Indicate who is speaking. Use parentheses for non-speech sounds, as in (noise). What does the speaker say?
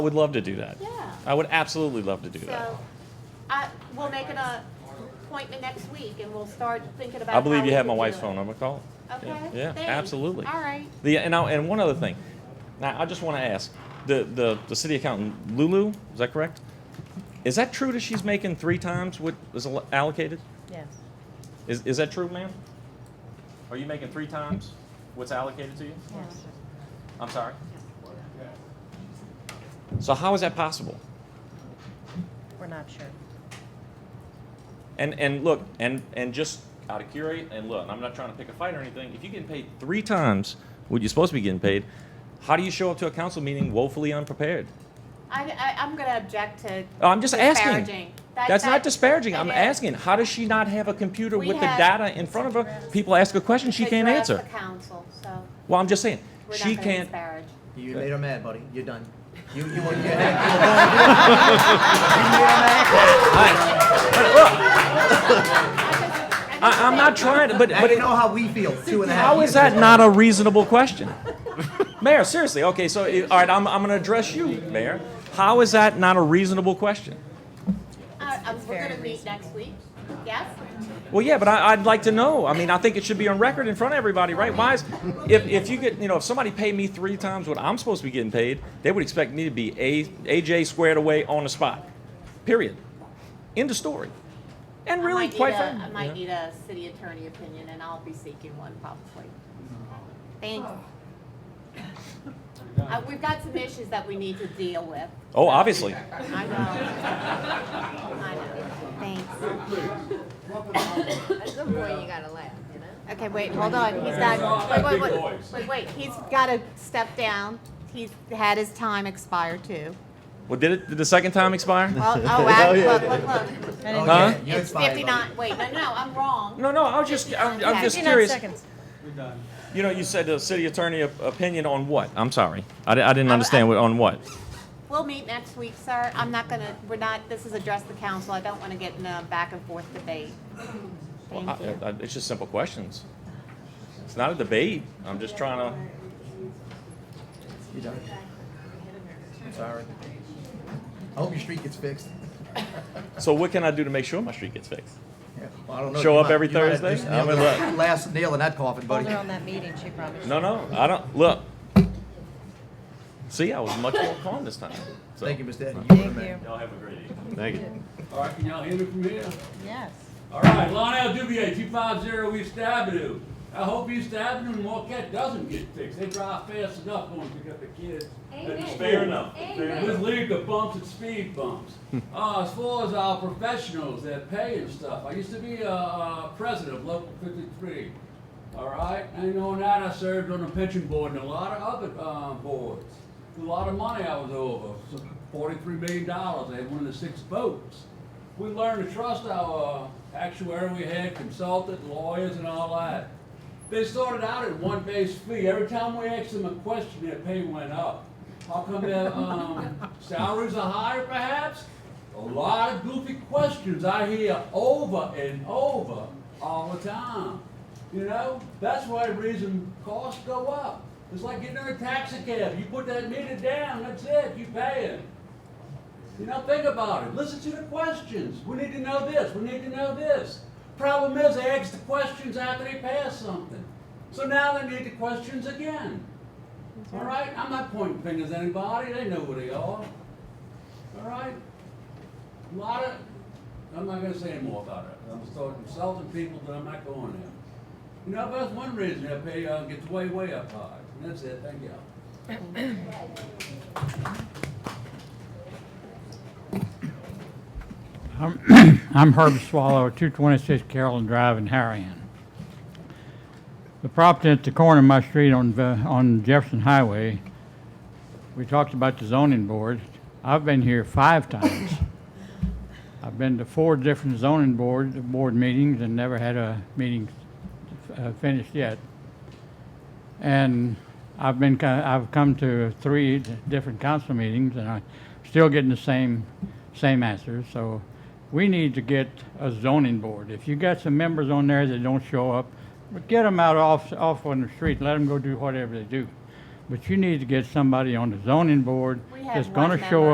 Speaker 1: I would love to do that.
Speaker 2: Yeah.
Speaker 1: I would absolutely love to do that.
Speaker 2: So, I, we'll make an uh, appointment next week and we'll start thinking about.
Speaker 1: I believe
Speaker 2: how
Speaker 1: you
Speaker 2: we
Speaker 1: have
Speaker 2: can
Speaker 1: my
Speaker 2: do
Speaker 1: wife's
Speaker 2: it.
Speaker 1: phone number. Call. it.
Speaker 2: Okay.
Speaker 1: Yeah, yeah
Speaker 2: thanks.
Speaker 1: absolutely.
Speaker 2: All right.
Speaker 1: The and I, and one other thing. Now I just want to ask the, the the city accountant Lulu is that correct? Is that true that she's making three times what is al- allocated?
Speaker 3: Yes.
Speaker 1: Is is that true, ma'am? Are you making three times what's allocated to you?
Speaker 3: Yes.
Speaker 1: I'm sorry. So how is that possible?
Speaker 3: We're not sure.
Speaker 1: And and look, and and just out of curiosity, and look, I'm not trying to pick a fight or anything. If you get paid three times what you're supposed to be getting paid, how do you show up to a council meeting woefully unprepared?
Speaker 2: I, I, I'm gonna object to.
Speaker 1: Oh, I'm just asking.
Speaker 2: disparaging. That-
Speaker 1: That's
Speaker 2: that-
Speaker 1: not disparaging. I'm
Speaker 2: it is.
Speaker 1: asking, how does she not have a computer
Speaker 2: We
Speaker 1: with the
Speaker 2: have-
Speaker 1: data in front of her? People ask a question, she
Speaker 2: To
Speaker 1: can't
Speaker 2: address
Speaker 1: answer.
Speaker 2: The council, so
Speaker 1: Well, I'm just saying,
Speaker 2: we're
Speaker 1: she
Speaker 2: not gonna
Speaker 1: can't.
Speaker 2: disparage.
Speaker 4: You made her mad, buddy. You're done. You, you, you, you, you, you, you, you, you
Speaker 1: (laughs)
Speaker 4: made her mad.
Speaker 1: I, I'm not trying to, but,
Speaker 4: Now
Speaker 1: but
Speaker 4: you
Speaker 1: it-
Speaker 4: know how we feel. Two and a half.
Speaker 1: how is
Speaker 4: years
Speaker 1: that
Speaker 4: ago.
Speaker 1: not a reasonable
Speaker 2: (laughs)
Speaker 1: question? Mayor, seriously, okay, so, eh, all right, I'm, I'm gonna address you, Mayor. How is that not a reasonable question?
Speaker 2: Uh, um,
Speaker 3: it's
Speaker 2: we're
Speaker 3: very
Speaker 2: gonna meet next week, yes?
Speaker 1: Well, yeah, but I, I'd like to know. I mean, I think it should be on record in front of everybody, right? Why is, if, if you get, you know, if somebody paid me three times what I'm supposed to be getting paid, they would expect me to be a, AJ squared away on the spot. Period. End of story. And
Speaker 2: I
Speaker 1: really,
Speaker 2: might need
Speaker 1: quite
Speaker 2: a-
Speaker 1: frankly.
Speaker 2: I might need a city attorney opinion and I'll be seeking one probably. Thanks.
Speaker 4: Oh.
Speaker 2: Uh, we've got some issues that we need to deal with.
Speaker 1: Oh, obviously.
Speaker 2: I know. I know. Thanks.
Speaker 5: At some point, you gotta laugh, you know?
Speaker 2: Okay, wait, hold on. He's got, wait, wait, wait, wait, wait. He's got to step down. He's had his time expire
Speaker 4: (laughs)
Speaker 2: too.
Speaker 1: Well, did it, did the second time expire?
Speaker 2: Well, oh, wow, look, look, look.
Speaker 4: Oh,
Speaker 1: Huh?
Speaker 4: yeah, you're
Speaker 2: It's
Speaker 4: fine, buddy.
Speaker 2: fifty-nine, wait, no, no, I'm wrong.
Speaker 1: No, no, I was just, I'm, I'm just
Speaker 3: 59
Speaker 1: curious.
Speaker 3: seconds.
Speaker 1: You know, you said the city attorney op- opinion on what? I'm sorry. I, di- I didn't understand what, on what.
Speaker 2: We'll meet next week, sir. I'm not gonna, we're not, this is address the council. I don't want to get in a back and forth debate.
Speaker 1: Well,
Speaker 2: Thank
Speaker 1: I,
Speaker 2: you.
Speaker 1: I, it's just simple questions. It's not a debate. I'm just trying to.
Speaker 4: You're done. I'm sorry. I hope your street gets fixed.
Speaker 1: So what can I do to make sure my street gets fixed?
Speaker 4: Yeah, well, I don't know.
Speaker 1: Show
Speaker 4: You
Speaker 1: up
Speaker 4: might-
Speaker 1: every
Speaker 4: you might have
Speaker 1: Thursday?
Speaker 4: just
Speaker 1: I'm
Speaker 4: nailed
Speaker 1: gonna
Speaker 4: the
Speaker 1: look.
Speaker 4: Last nail in that coffin,
Speaker 3: Hold
Speaker 4: buddy.
Speaker 3: her on that meeting, she promised.
Speaker 1: No, no, I don't. Look. See, I was much more calm this time. So.
Speaker 4: Thank you, Mr. Eddie. were
Speaker 3: Thank
Speaker 4: the man.
Speaker 3: you.
Speaker 1: Y'all have a great evening.
Speaker 6: Thank you.
Speaker 7: All right, can y'all hear me from here?
Speaker 3: Yes.
Speaker 7: All right, Lionel Dubier, two five zero East Avenue. I hope East Avenue and Marquette doesn't get fixed. They drive fast enough going to pick up the kids. Amen. Fair enough. With legal bumps and speed bumps. Uh, as far as our professionals, their pay and stuff, I used to be, uh, uh, president of Local fifty-three. All right, and on that, I served on the pension board and a lot of other, uh, boards. A lot of money I was over, forty-three million dollars, I had one of the six votes. We learned to trust our uh, actuary we had, consultant, lawyers and all that. They started out at one base fee, every time we asked them a question, their pay went up. How come their, um, salaries are higher perhaps? A lot of goofy questions I hear over and over all the time. You know, that's why the reason costs go up. It's like getting in a taxi cab. You put that meter down, that's it, you pay it. You know, think about it. Listen to the questions. We need to know this. We need to know this. Problem is, they ask the questions after they pass something. So now they need the questions again. All right? I'm not pointing fingers at anybody. They know who they are. All right? A lot of, I'm not gonna say any more about it. I'm starting insulting people that I'm not going there. You know, that's one reason their pay uh, gets way, way up high. And that's it. Thank y'all.
Speaker 8: I'm Herb Swallow, 226 Carolyn Drive in Harahan. The property at the corner of my street on, Ve- on Jefferson Highway, we talked about the zoning board. I've been here five times. I've been to four different zoning board, board meetings and never had a meeting uh, finished yet. And I've been, co- I've come to three different council meetings, and I'm still getting the same, same answers. So we need to get a zoning board. If you got some members on there that don't show up, get them out off, off on the street, let them go do whatever they do. but you need to get somebody on the zoning board
Speaker 2: We have
Speaker 8: that's gonna
Speaker 2: one
Speaker 8: show
Speaker 2: member.